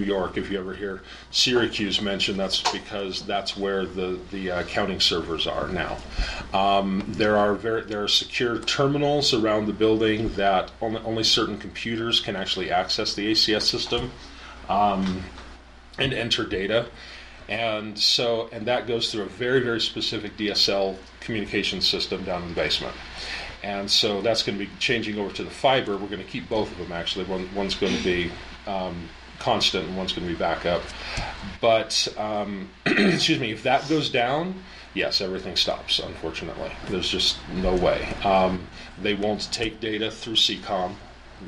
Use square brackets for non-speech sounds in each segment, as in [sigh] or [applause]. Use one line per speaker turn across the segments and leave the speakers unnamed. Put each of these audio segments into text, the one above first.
New York, if you ever hear Syracuse mentioned, that's because that's where the, the uh, counting servers are now. Um, there are very, there are secure terminals around the building that only, only certain computers can actually access the ACS system um, and enter data. And so, and that goes through a very, very specific DSL communication system down in the basement. And so that's going to be changing over to the fiber. We're going to keep both of them actually. One, one's going to be um, constant and one's going to be backup. But, um, [clears throat] excuse me, if that goes down, yes, everything stops, unfortunately. There's just no way. Um, they won't take data through CCOM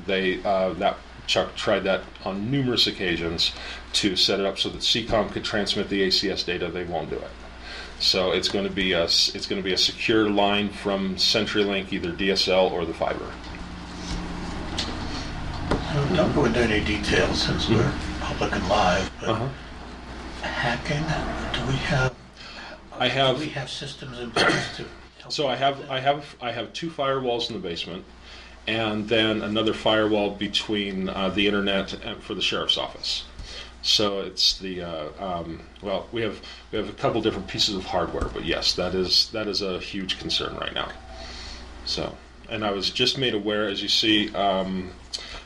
they uh, that Chuck tried that on numerous occasions to set it up so that CCOM could transmit the ACS data. They won't do it. So it's going to be a s- it's going to be a secure line from CenturyLink, either DSL or the fiber.
Don't don't go into any details since we're
Mm-hmm.
public and live,
Uh-huh.
but hacking, do we have,
I
do we
have
have systems in place to? help
so I have I have I have two firewalls in the basement, and then another firewall between uh, the internet and for the sheriff's office. So it's the uh, um, well we have we have a couple different pieces of hardware, but yes, that is that is a huge concern right now. So, and I was just made aware, as you see, um,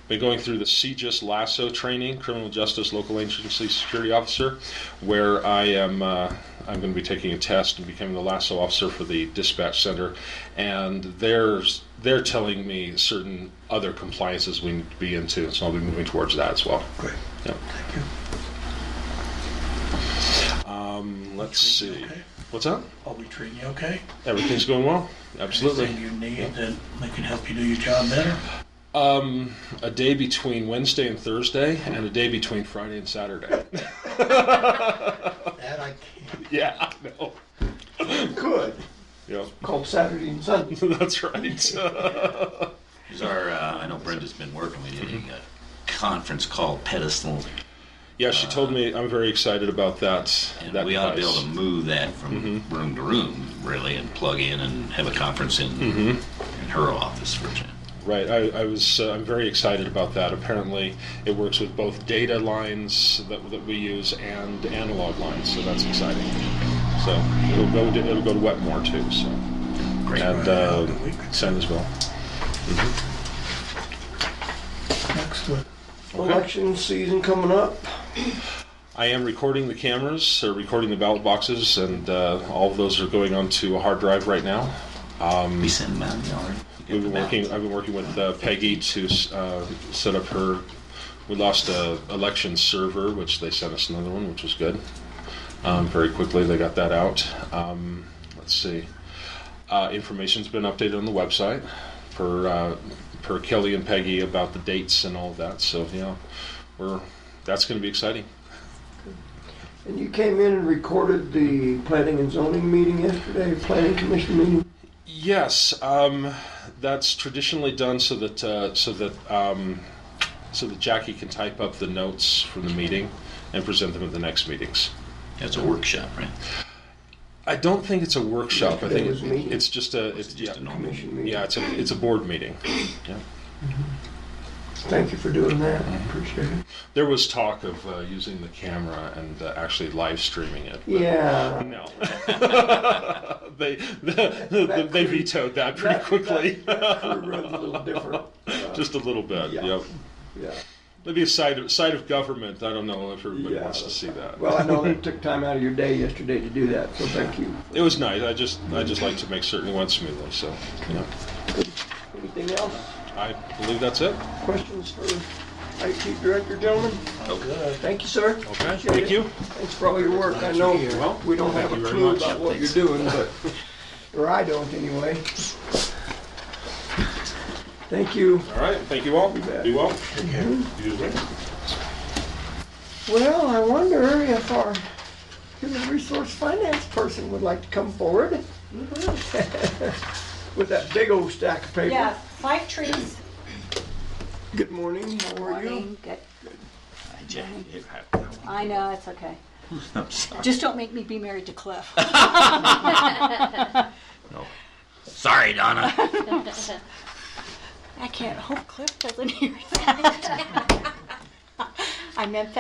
been going through the CJIS LASSO training, Criminal Justice Local Agency Security Officer, where I am. Uh, I'm going to be taking a test and becoming the lasso officer for the dispatch center, and they're they're telling me certain other compliances we need to be into, so I'll be moving towards that as well.
Great,
Yeah.
thank you.
Um, let's see,
Okay.
what's up?
Are we treating you okay?
Everything's going well. Absolutely.
Anything you need that we can help you do your job
[laughs]
better?
Um, a day between Wednesday and Thursday, and a day between Friday and Saturday. [laughs]
That I can't.
yeah, I know.
Good.
Yeah,
Called Saturday and Sunday.
[laughs] that's right. [laughs]
Is our, uh, I know Brenda's been working with you,
Mm-hmm.
a conference called Pedestal,
yeah, she told me I'm very excited about that.
and
that
we ought to be able
device.
to move that from
Mm-hmm.
room to room, really, and plug in and have a conference in
Mm-hmm.
in her office, for example.
Right. I, I was. Uh, I'm very excited about that. Apparently, it works with both data lines that, that we use and analog lines, so that's exciting. So it'll go. To, it'll go to Wetmore too. So
Great.
and uh, San Isabel.
Excellent.
Election season coming up.
I am recording the cameras, or recording the ballot boxes, and uh, all of those are going onto a hard drive right now.
Be sending them out, you know,
We've
get
been
them out.
working. I've been working with uh, Peggy to uh, set up her. We lost a election server, which they sent us another one, which was good. Um, very quickly, they got that out. Um, let's see. Uh, information's been updated on the website per uh, per Kelly and Peggy about the dates and all of that. So yeah, we're that's going to be exciting.
And you came in and recorded the planning and zoning meeting yesterday, planning commission meeting.
Yes, um, that's traditionally done so that uh, so that um, so that Jackie can type up the notes from the meeting and present them at the next meetings.
That's a workshop, right?
I don't think it's a workshop. I think
It was a meeting.
it's just a it's,
It's
yeah,
just a normal.
Commission meeting.
yeah it's a it's a board meeting. Yeah.
Thank you for doing that. Appreciate it.
There was talk of uh, using the camera and uh, actually live streaming it. but
[laughs] Yeah.
No. [laughs] they they vetoed that pretty
That-
quickly.
That, that crew runs a little different.
[laughs]
Uh,
just a little bit.
Yeah.
Yep.
yeah.
Maybe a side of, side of government. I don't know if everybody
Yeah.
wants to see that.
Well, I know that took time out of your day yesterday to do that, so thank you.
it was nice. I just I just like to make certain it went smoothly. So, you know,
Anything else?
I believe that's it.
Questions for IT director, gentlemen?
All good.
Thank you, sir.
Okay.
Appreciate
Thank
it.
you.
Thanks for all your work. I know we don't have
you
a
very
clue
much.
about what you're doing, but, or I don't anyway. Thank you.
All right. Thank you all.
bet.
Be well.
Take care.
You as well.
Well, I wonder if our human resource finance person would like to come forward Mm-hmm. [laughs] with that big old stack of paper.
Yeah, five trees.
Good morning, how are you?
Morning, Good.
Jackie, it
I know, it's okay.
I'm sorry.
Just don't make me be married to Cliff.
No. Sorry, Donna.
Oh, [laughs] I can't hope Cliff doesn't hear that. I meant that